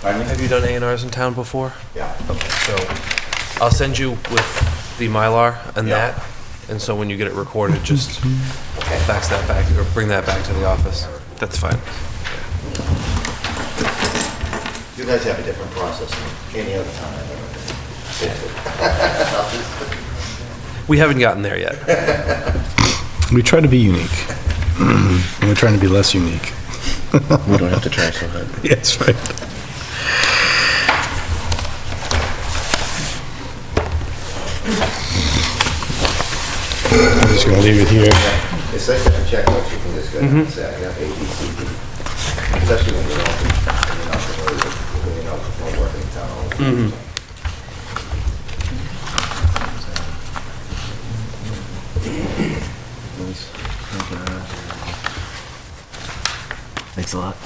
Pardon me? Have you done A and Rs in town before? Yeah. Okay, so I'll send you with the Mylar and Yeah. that, and so when you get it recorded, just fax that back, or bring that back to the office. That's fine. You guys have a different process than any other town I've ever been. We haven't gotten there yet. We try to be unique. Mm-hmm. And We're trying to be less unique. We don't have to try so hard. Yes, right. I'm just gonna leave it here. to. It's nice to have a checklist, you can just go down and say, I got A, B, C, D. Especially when you're not, when you're not familiar with- when you're not from working in town. hall. Thanks a lot.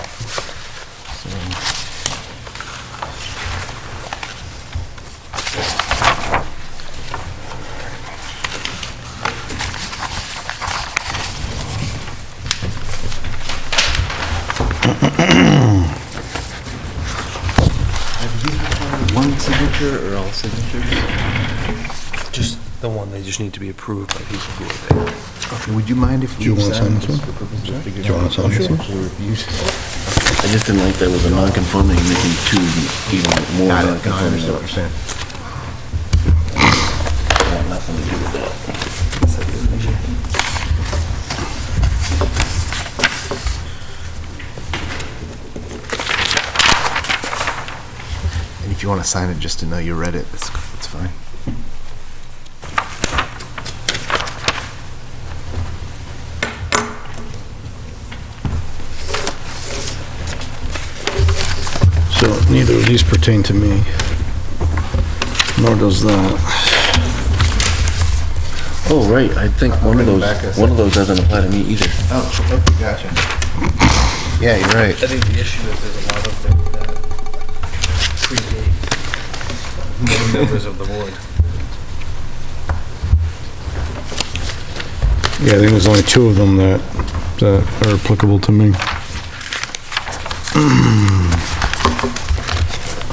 One signature or all signatures? Just the one, they just need to be approved by people who are there. Would you mind if we? Do you wanna sign signed this one? for purposes of figuring Do you wanna out sign this if one? it's abused? I just didn't like that was a non-conforming, making two even more Got it, no, I non-conforming. understand what you're saying. I want Nothing to do with that. And if you want to sign it just to know you read it, it's, it's fine. So neither of these pertain to me, nor does that. Oh, right, I think one of bring it those, back in a one of those doesn't apply to me either. Oh, okay, gotcha. Yeah, you're right. I think the issue is there's a lot of them that predate many members of the board. Yeah, I think there's only two of them that, that are applicable to me. I'm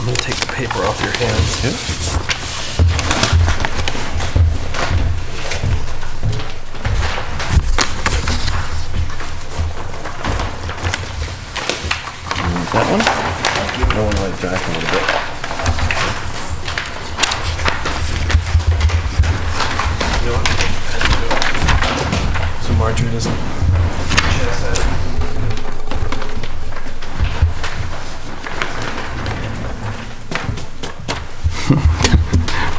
gonna take the paper off your hands. That one? I want to let it dry for a little bit. You know what? So Marjorie doesn't.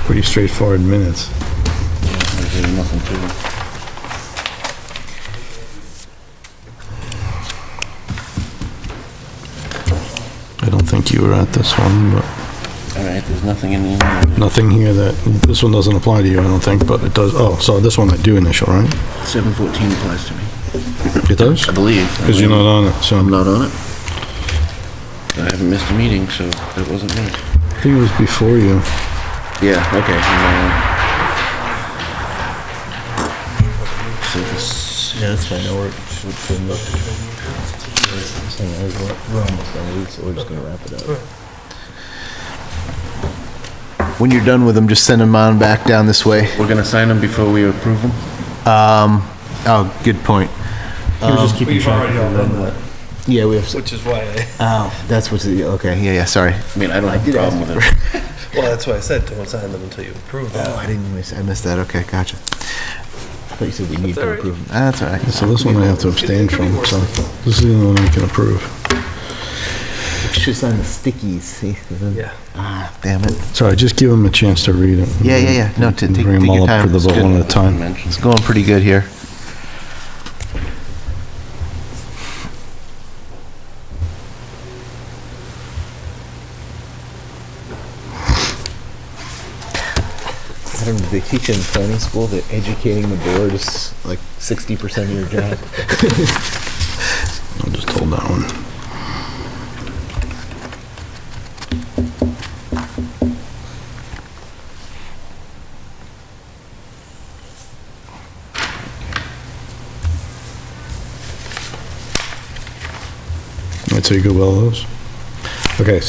Pretty straightforward minutes. There's really nothing to it. I don't think you were at this one, but. All right, there's nothing in the, Nothing here that, this one doesn't apply to you, I don't think, but it does, oh, so this one I do initial, right? seven fourteen applies to me. It does? I believe. Because you're not on it, so. I'm not on it. I haven't missed a meeting, so it wasn't me. I think it was before you. Yeah, okay. I'm not on it. So this, Yeah, that's fine, or should we We're almost done, we're- so we're just gonna wrap it up. When you're done with them, just send them on back down this way. we're gonna sign them before we approve them? Oh, good point. Um, just keeping track of Yeah, we have, Which is why, I- oh, that's what's, okay, yeah, yeah, sorry. I mean, I don't have a problem with it. well, that's why I said don't sign them until you approve them. Oh, I didn't, miss- I missed that, okay, gotcha. I thought you said we need all to right. approve. 'em. Ah, That's all right. So this one I have to abstain from, so this is the only one I can approve. Just on the stickies, see? Yeah. Ah, damn it. So I just give them a chance to read it. Yeah, yeah, yeah. No, t- And take- Bring take them your all up time. for the It's vote good. one at a time. Mention. It's going pretty good here. I don't know, they teach in planning school that educating the board is like sixty percent of your job. I'll just hold that one. I'd say go well those. Okay,